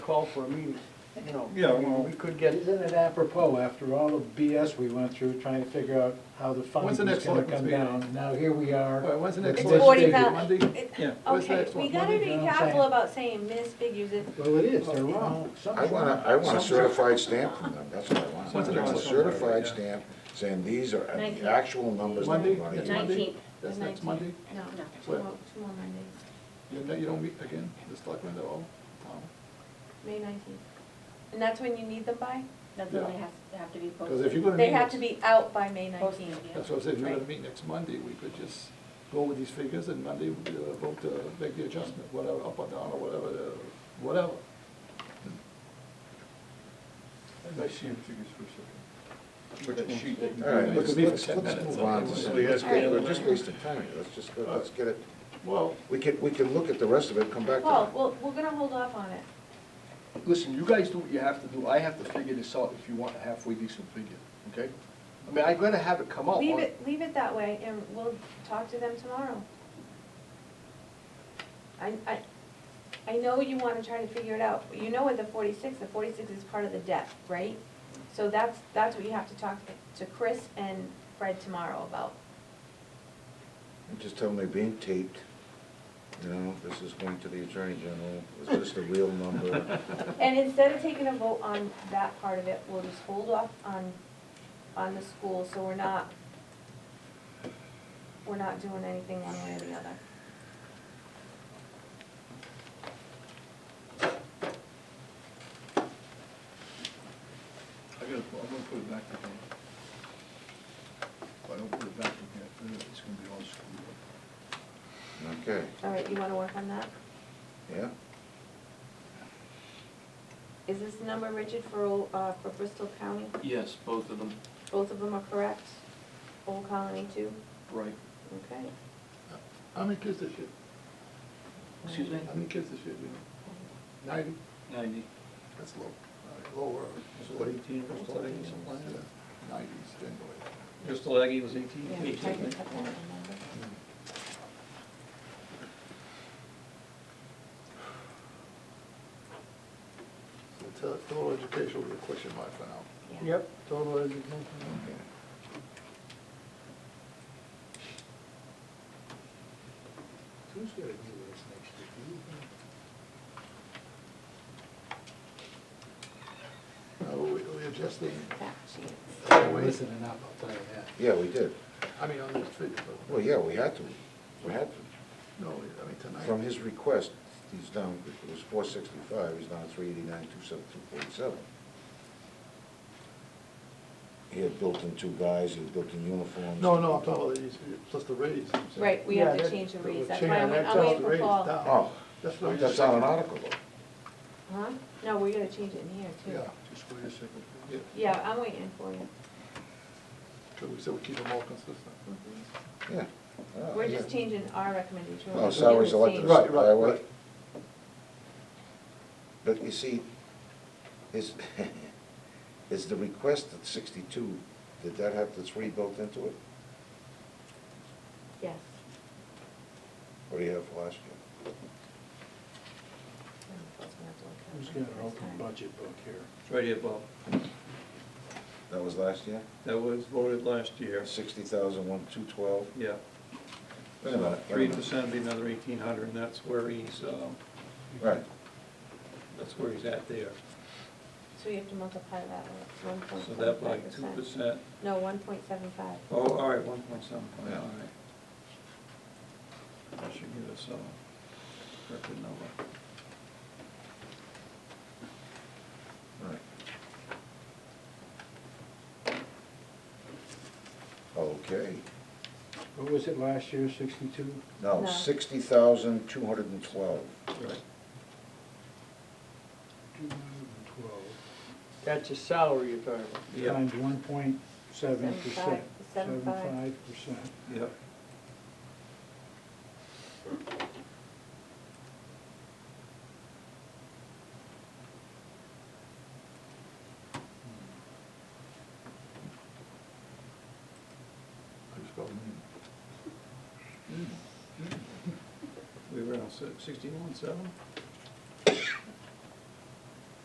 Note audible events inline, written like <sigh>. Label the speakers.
Speaker 1: call for a meeting, you know.
Speaker 2: Yeah, well-
Speaker 1: We could get,
Speaker 3: Isn't it apropos, after all the BS we went through, trying to figure out how the funding
Speaker 2: When's the
Speaker 3: was
Speaker 2: next
Speaker 3: gonna
Speaker 2: selectmen's
Speaker 3: come
Speaker 2: meeting?
Speaker 3: down? Now here we are.
Speaker 2: Well, when's the next
Speaker 3: It's
Speaker 2: one?
Speaker 4: forty-five.
Speaker 2: Monday? Yeah. When's the
Speaker 4: Okay,
Speaker 2: next
Speaker 4: we
Speaker 2: one?
Speaker 4: gotta be
Speaker 3: Monday,
Speaker 4: careful
Speaker 3: John?
Speaker 4: about saying misfigures if,
Speaker 3: Well, it is, they're wrong.
Speaker 5: I want a, I want a certified stamp from them, that's what I want.
Speaker 2: What's the next
Speaker 5: A
Speaker 2: one?
Speaker 5: certified stamp saying these are
Speaker 4: Nineteen.
Speaker 5: the actual numbers that
Speaker 2: Monday?
Speaker 5: we're running.
Speaker 2: Next Monday?
Speaker 4: nineteenth, the
Speaker 2: That's
Speaker 4: nineteenth.
Speaker 2: next Monday?
Speaker 4: No, two
Speaker 2: What?
Speaker 4: more, two more Mondays,
Speaker 2: You don't- You don't meet again, the selectmen at all?
Speaker 4: May nineteenth. And that's when you need them by?
Speaker 6: That's when
Speaker 2: Yeah.
Speaker 6: they have, have to be posted.
Speaker 2: Because if you're gonna meet.
Speaker 4: They have
Speaker 2: next-
Speaker 4: to be out by May nineteenth.
Speaker 6: Posted,
Speaker 2: That's what I said, if you're
Speaker 4: Right.
Speaker 2: gonna meet next Monday, we could just go with these figures and Monday we could, uh, vote to make the adjustment, whatever, up or down or whatever, uh, whatever.
Speaker 7: I see the figures for a second. Which sheet?
Speaker 5: All right,
Speaker 2: It
Speaker 5: let's,
Speaker 2: could be for
Speaker 5: let's,
Speaker 2: 10
Speaker 5: let's
Speaker 2: minutes.
Speaker 5: move on to some, let's
Speaker 4: All right.
Speaker 5: get, we're just wasting time here, let's just, let's get it,
Speaker 2: Well,
Speaker 5: we can, we can look at the rest of it, come back
Speaker 4: Well,
Speaker 5: to
Speaker 4: well, we're gonna hold off on it.
Speaker 7: Listen, you guys do what you have to do, I have to figure this out if you want a halfway decent figure, okay? I mean, I'm gonna have it come out.
Speaker 4: Leave
Speaker 7: on-
Speaker 4: it, leave it that way and we'll talk to them tomorrow. I, I, I know you wanna try to figure it out. You know what the forty-six, the forty-six is part of the debt, right? So that's, that's what you have to talk to Chris and Fred tomorrow about.
Speaker 5: it. Just tell them they're being taped, you know, this is going to the Attorney General, is this the real number?
Speaker 4: And instead of taking a vote on that part of it, we'll just hold off on, on the school, so we're not, we're not doing anything one way or the other.
Speaker 7: I gotta, I'm gonna put it back in here. If I don't put it back in here, then it's gonna be all screwed up.
Speaker 5: Okay,
Speaker 4: All right, you wanna work on that?
Speaker 5: yeah,
Speaker 4: Is this the number, Richard, for, Ol- uh, for Bristol County?
Speaker 8: Yes, both of them,
Speaker 4: Both of them are correct? Old Colony too?
Speaker 8: right.
Speaker 4: Okay.
Speaker 2: how many kids this year?
Speaker 8: Excuse me?
Speaker 2: How many kids this year, do you know? Ninety?
Speaker 8: Ninety.
Speaker 2: That's low. All right, Lower.
Speaker 7: It's what, 18 or
Speaker 2: Almost
Speaker 7: something?
Speaker 2: 18, something like that. Nineties, then.
Speaker 8: Bristol Aggie was eighteen?
Speaker 4: Yeah, I can cut that number.
Speaker 2: So tell- Total education will be a question mark for now.
Speaker 4: Yeah.
Speaker 1: yep, total education.
Speaker 5: okay.
Speaker 3: Who's gonna do this next year?
Speaker 2: Now, we, we adjust the,
Speaker 4: Fact sheet.
Speaker 2: the way-
Speaker 3: Listening up, I'll tell you that.
Speaker 5: Yeah, we did,
Speaker 2: I mean, on this figure, but,
Speaker 5: well, yeah, we had to, we had to.
Speaker 2: no, I mean, tonight.
Speaker 5: From his request, he's down, it was four sixty-five, he's down three eighty-nine, two seven, two forty-seven. He had built in two guys, he had built in uniforms.
Speaker 2: No, no, I'm talking about these, plus the raise.
Speaker 4: Right, we
Speaker 1: Yeah,
Speaker 4: have to
Speaker 1: that-
Speaker 4: change the
Speaker 2: that would
Speaker 4: reads, that's
Speaker 2: change-
Speaker 4: why I'm,
Speaker 2: that
Speaker 4: I'm
Speaker 2: tells
Speaker 4: waiting
Speaker 2: the
Speaker 4: for
Speaker 2: rates
Speaker 4: Paul.
Speaker 2: down.
Speaker 5: Oh,
Speaker 2: That's what I'm
Speaker 5: that's
Speaker 2: just
Speaker 5: not an
Speaker 2: saying.
Speaker 5: article though.
Speaker 4: Huh? No, we're gonna change it in here too.
Speaker 2: Yeah,
Speaker 7: Just wait a second.
Speaker 2: yeah,
Speaker 4: Yeah, I'm waiting for you.
Speaker 2: because we said we keep them all consistent.
Speaker 5: Yeah. Oh,
Speaker 4: We're
Speaker 5: yeah.
Speaker 4: just changing our recommendation.
Speaker 5: Oh, salaries elected,
Speaker 2: Right, right,
Speaker 5: highway.
Speaker 2: right.
Speaker 5: But you see, is, <laughs> is the request at sixty-two, did that have the three built into it?
Speaker 4: Yes.
Speaker 5: What do you have for last year?
Speaker 3: Who's got an open budget book here?
Speaker 7: It's right here, Bob.
Speaker 5: That was last year?
Speaker 7: That was voted last year.
Speaker 5: Sixty thousand, one, two twelve?
Speaker 7: Yeah.
Speaker 5: Wait a minute, wait a
Speaker 7: Three
Speaker 5: minute.
Speaker 7: percent would be another eighteen hundred, and that's where he's, um,
Speaker 5: Right.
Speaker 7: that's where he's at there.
Speaker 4: So you have to multiply that by one point
Speaker 7: So
Speaker 4: seven
Speaker 7: that by
Speaker 4: five
Speaker 7: two
Speaker 4: percent.
Speaker 7: percent,
Speaker 4: No, one point seven five.
Speaker 7: oh, all right, one point seven five,
Speaker 5: Yeah.
Speaker 7: all right. That should give us a corrected number.
Speaker 5: Right. Okay,
Speaker 3: What was it last year, sixty-two?
Speaker 5: now,
Speaker 4: No.
Speaker 5: sixty thousand, two hundred and twelve.
Speaker 7: Right.
Speaker 3: Two hundred and twelve.
Speaker 1: That's a salary you're talking about.
Speaker 7: Yeah.
Speaker 3: Times one point seven percent.
Speaker 4: Seven five, seven
Speaker 3: Seven five percent.
Speaker 7: Yep.
Speaker 2: I just hmm. got them
Speaker 7: We were on sixty-one, seven?
Speaker 2: in.